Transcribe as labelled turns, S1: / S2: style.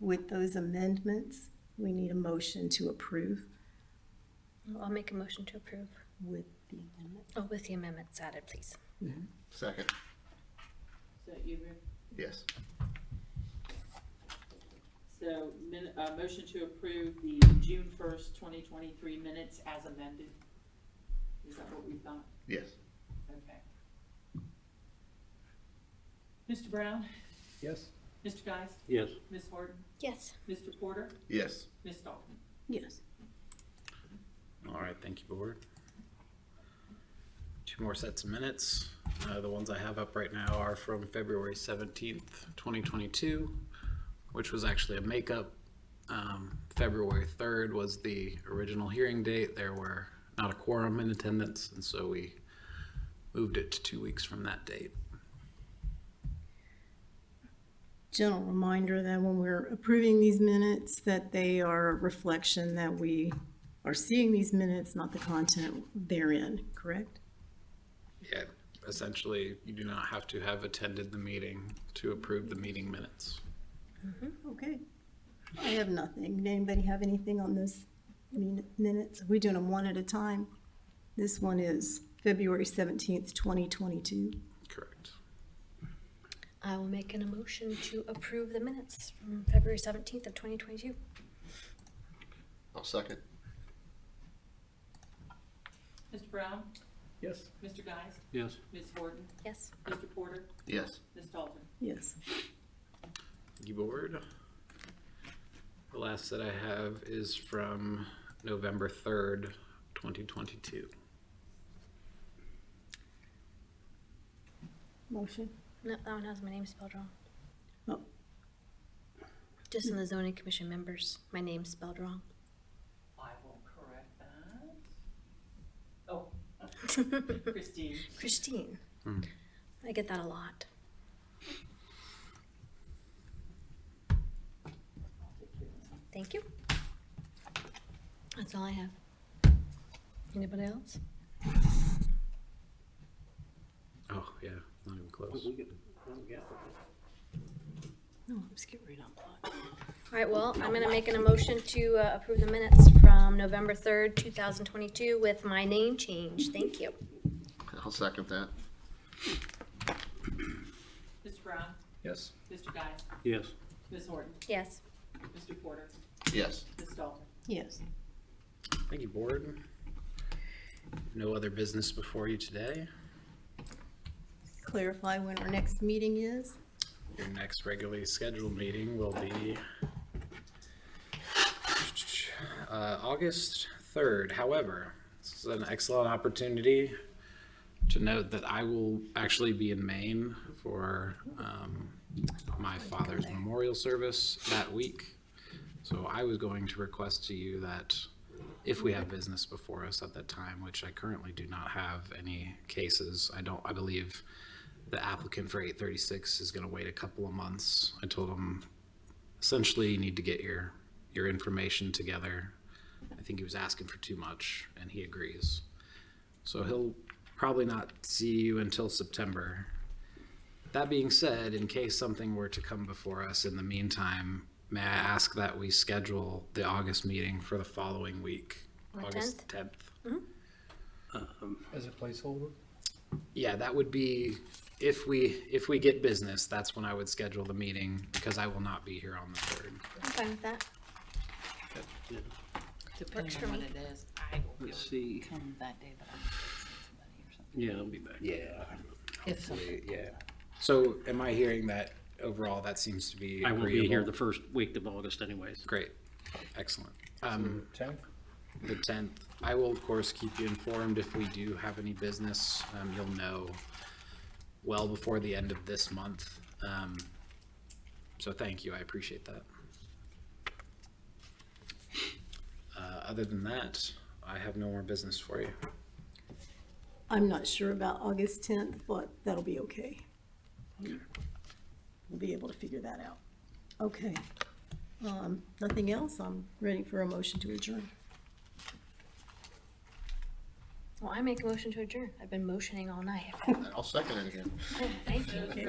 S1: with those amendments, we need a motion to approve
S2: I'll make a motion to approve.
S1: with the amendment.
S2: Oh, with the amendments added, please.
S3: Second,
S4: So you, re-
S3: yes.
S4: so min, uh, motion to approve the June first, twenty twenty-three minutes as amended? Is that what we've got?
S3: Yes.
S4: Okay. Mr. Brown?
S5: Yes.
S4: Mr. Geist?
S6: Yes.
S4: Ms. Horton?
S2: Yes.
S4: Mr. Porter?
S3: Yes.
S4: Ms. Dalton?
S1: Yes.
S5: All right, thank you, board. Two more sets of minutes. Uh, the ones I have up right now are from February seventeenth, twenty twenty-two, which was actually a makeup. Um, February third was the original hearing date. There were not a quorum in attendance, and so we moved it to two weeks from that date.
S1: Gentle reminder that when we're approving these minutes, that they are a reflection that we are seeing these minutes, not the content therein, correct?
S5: Yeah, essentially, you do not have to have attended the meeting to approve the meeting minutes.
S1: Okay. I have nothing. Anybody have anything on those min- minutes? Are we doing them one at a time? This one is February seventeenth, twenty twenty-two.
S5: Correct.
S2: I will make an emotion to approve the minutes from February seventeenth of twenty twenty-two.
S3: I'll second,
S4: Mr. Brown?
S5: Yes.
S4: Mr. Geist?
S6: Yes.
S4: Ms. Horton?
S2: Yes.
S4: Mr. Porter?
S3: yes.
S4: Ms. Dalton?
S1: Yes.
S5: You board. The last that I have is from November third, twenty twenty-two.
S1: Motion?
S2: No, that one has my name spelled wrong.
S1: Oh.
S2: Just in the zoning commission members, my name's spelled wrong.
S4: I will correct that. Oh, Christine.
S2: Christine.
S5: Hmm.
S2: I get that a lot.
S4: I'll take care of that.
S2: Thank you. That's all I have. Anybody else?
S5: Oh, yeah, not even close.
S1: No, let's get rid of
S2: All right, well, I'm gonna make an emotion to uh, approve the minutes from November third, two thousand twenty-two with my name change. Thank you.
S3: I'll second that.
S4: Mr. Brown?
S5: Yes.
S4: Mr. Geist?
S6: Yes.
S4: Ms. Horton?
S2: Yes.
S4: Mr. Porter?
S3: Yes.
S4: Ms. Dalton?
S1: Yes.
S5: Thank you, board. No other business before you today.
S1: Clarify when our next meeting is.
S5: Your next regularly scheduled meeting will be uh, August 3rd. However, this is an excellent opportunity to note that I will actually be in Maine for um, my father's memorial service that week. So I was going to request to you that if we have business before us at that time, which I currently do not have any cases, I don't, I believe the applicant for eight thirty-six is gonna wait a couple of months. I told him essentially you need to get your, your information together. I think he was asking for too much and he agrees. So he'll probably not see you until September. That being said, in case something were to come before us in the meantime, may I ask that we schedule the August meeting for the following week?
S2: On
S5: August tenth.
S7: As a placeholder?
S5: Yeah, that would be, if we, if we get business, that's when I would schedule the meeting, because I will not be here on the third.
S2: I'm fine with that. Works
S8: Depending
S2: for
S8: on what
S2: me.
S8: it is, I will be
S6: Let's
S8: able to
S6: see.
S8: come that day, but I'm somebody or something.
S6: Yeah, I'll be back.
S5: Yeah.
S8: If something
S5: Yeah. So am I hearing that overall, that seems to be
S6: I will be here the
S5: agreeable?
S6: first week of August anyways.
S5: Great, excellent. Um,
S7: Tenth?
S5: the tenth, I will of course keep you informed if we do have any business. Um, you'll know well before the end of this month. Um, so thank you, I appreciate that. Uh, other than that, I have no more business for you.
S1: I'm not sure about August tenth, but that'll be okay. We'll be able to figure that out. Okay. Um, nothing else? I'm ready for a motion to adjourn.
S2: Well, I make a motion to adjourn. I've been motioning all night.
S3: I'll second it again.
S2: Thank you.